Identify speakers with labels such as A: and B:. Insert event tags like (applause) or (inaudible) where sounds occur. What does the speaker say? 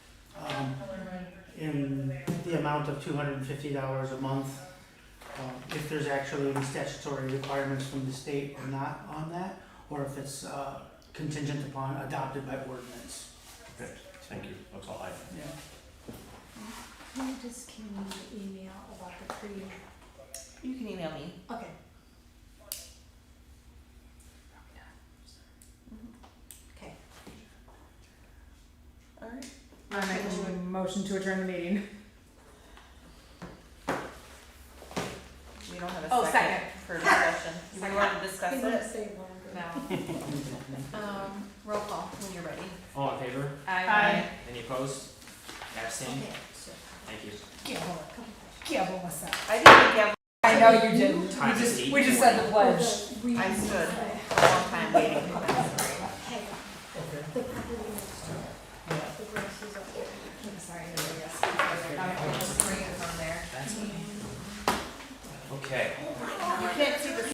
A: Um, amount of two hundred and fifty dollars a month. um, If there's actually any statutory requirements from the state or not on that, or if it's uh, contingent upon adopted by ordinance.
B: Okay, thank you, that's all I have.
A: Yeah.
C: Can you just give me the email about the pre?
D: You can email me.
C: Okay. Okay.
D: Alright.
E: I make a motion to adjourn the meeting.
D: We don't have a
E: Oh,
D: second for (laughs) discussion. We
E: Second.
D: want to discuss
C: Can you
D: it?
C: say longer?
D: No. Um, roll call when you're ready.
F: All in favor?
E: Aye.
F: Any opposed? Abstained?
C: Okay, so,
F: Thank you.
E: Give
C: a couple questions.
E: Give us up.
D: I didn't
E: I know you did. We
F: Time is
E: just, we just
F: 8:40.
E: said the
C: Well,
E: pledge.
C: the reason
D: I
C: why-
D: stood. think we have a long time waiting.
C: Hey, the property next door, the grass is up there.
E: I'm Sorry, yes.
D: Just bring it on there.
F: That's okay.
D: You can't see the